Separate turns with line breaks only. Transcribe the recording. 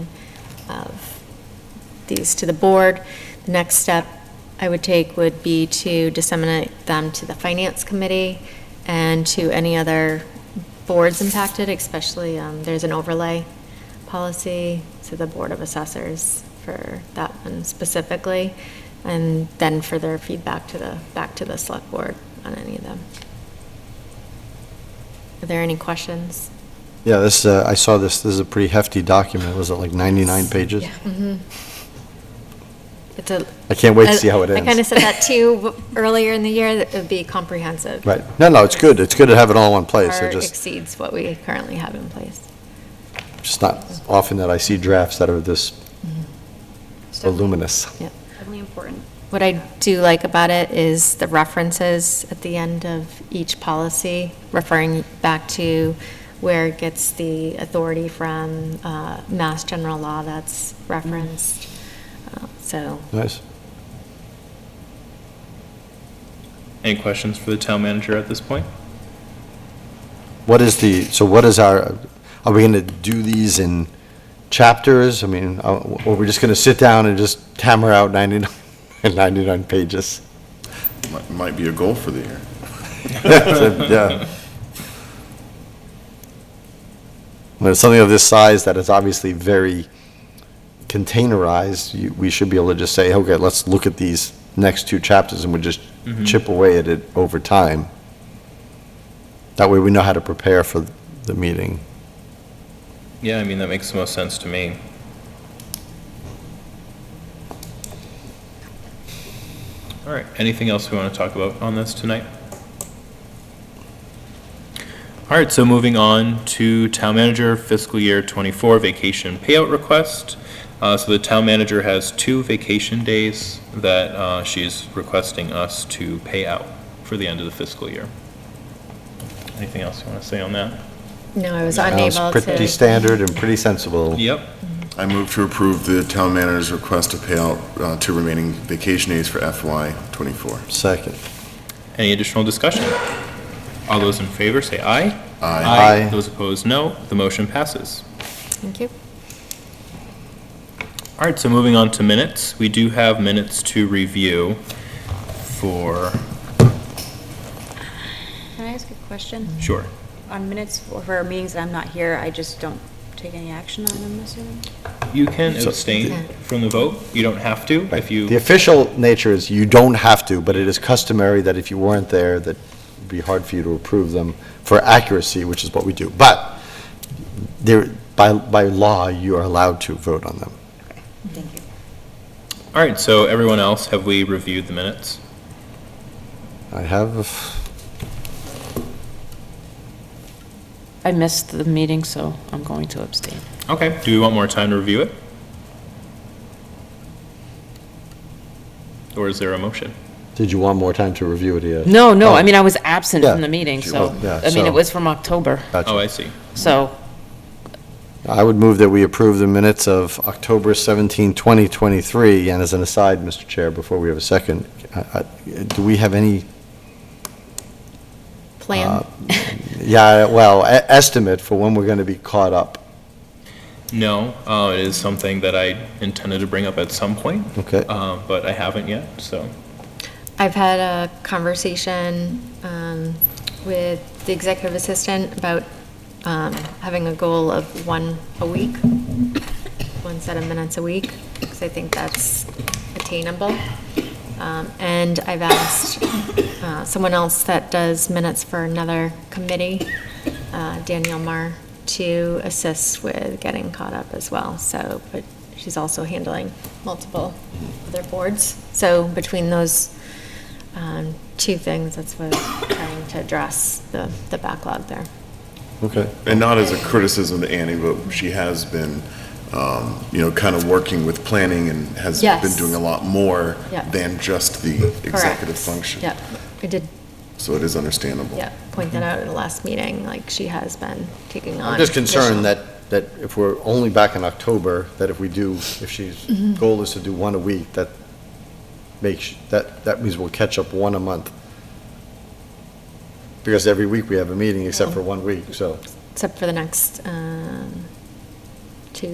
these to the board. The next step I would take would be to disseminate them to the Finance Committee and to any other boards impacted, especially, um, there's an overlay policy to the Board of Assessors for that one specifically, and then further feedback to the, back to the Select Board on any of them. Are there any questions?
Yeah, this, uh, I saw this, this is a pretty hefty document, was it like 99 pages?
Mm-hmm. It's a.
I can't wait to see how it
I kind of
ends.
said that too w- earlier in the year, that it would be comprehensive.
Right, no, no, it's good, it's good to have it all in one place,
Far
I just,
exceeds what we currently have in place.
just not often that I see drafts that are this voluminous.
Yep.
Definitely important.
What I do like about it is the references at the end of each policy, referring back to where it gets the authority from, uh, mass general law that's referenced.
Mm-hmm.
Uh, So,
Nice.
Any questions for the town manager at this point?
What is the, so what is our, are we going to do these in chapters? I mean, uh, or we're just going to sit down and just hammer out 99, 99 pages?
Might- Might be a goal for the year.
Yeah. When it's something of this size that is obviously very containerized, you, we should be able to just say, okay, let's look at these next two chapters and we just chip away at it over time. That way we know how to prepare for the meeting.
Yeah, I mean, that makes the most sense to me. All right, anything else we want to talk about on this tonight? All right, so moving on to town manager fiscal year 24 vacation payout request. Uh, So the town manager has two vacation days that uh, she's requesting us to pay out for the end of the fiscal year. Anything else you want to say on that?
no, I was
Sounds
unable
Pretty
to.
standard and pretty sensible.
Yep.
I move to approve the town manager's request to pay out uh, two remaining vacation days for FY '24.
Second.
Any additional discussion? All those in favor say aye.
Aye.
Aye.
Those opposed, no. The motion passes.
Thank you.
All right, so moving on to minutes. We do have minutes to review for,
Can I ask a question?
sure.
On minutes for for meetings that I'm not here, I just don't take any action on them, assuming?
You can
So-
abstain from the vote. You don't have to
Right.
if you,
The official nature is you don't have to, but it is customary that if you weren't there, that it'd be hard for you to approve them for accuracy, which is what we do. But there, by, by law, you are allowed to vote on them.
Thank you.
all right, so everyone else, have we reviewed the minutes?
I have, a f-
I missed the meeting, so I'm going to abstain.
Okay, do we want more time to review it? Or is there a motion?
did you want more time to review it yet?
No, no, I
Oh.
mean, I was absent
Yeah.
from the meeting, so,
Oh, yeah,
I mean,
so-
it was from October,
Oh,
Gotcha.
I see.
so,
I would move that we approve the minutes of October 17, 2023. And as an aside, Mr. Chair, before we have a second, I- I- do we have any
Plan,
Yeah, well, e- estimate for when we're going to be caught up,
No, uh, it is something that I intended to bring up at some point.
okay?
Uh, but I haven't yet, so.
I've had a conversation um, with the executive assistant about um, having a goal of one a week, one set of minutes a week, because I think that's attainable. Um, And I've asked uh, someone else that does minutes for another committee, uh, Danielle Marr, to assist with getting caught up as well, so, but she's also handling multiple other boards. So between those um, two things, that's what I'm trying to address, the the backlog there.
Okay.
And not as a criticism to Annie, but she has been, um, you know, kind of working with planning and has been
Yes.
doing a lot more
Yeah.
than just the executive
Correct.
function.
Yep, I did,
So it is understandable.
yeah, point that out in the last meeting, like she has been taking on.
I'm just concerned
additional-
that, that if we're only back in October, that if we do, if she's,
Mm-hmm.
goal is to do one a week, that makes, that, that means we'll catch up one a month.
Oh.
Because every week we have a meeting except for one week, so.
Except for the next, um,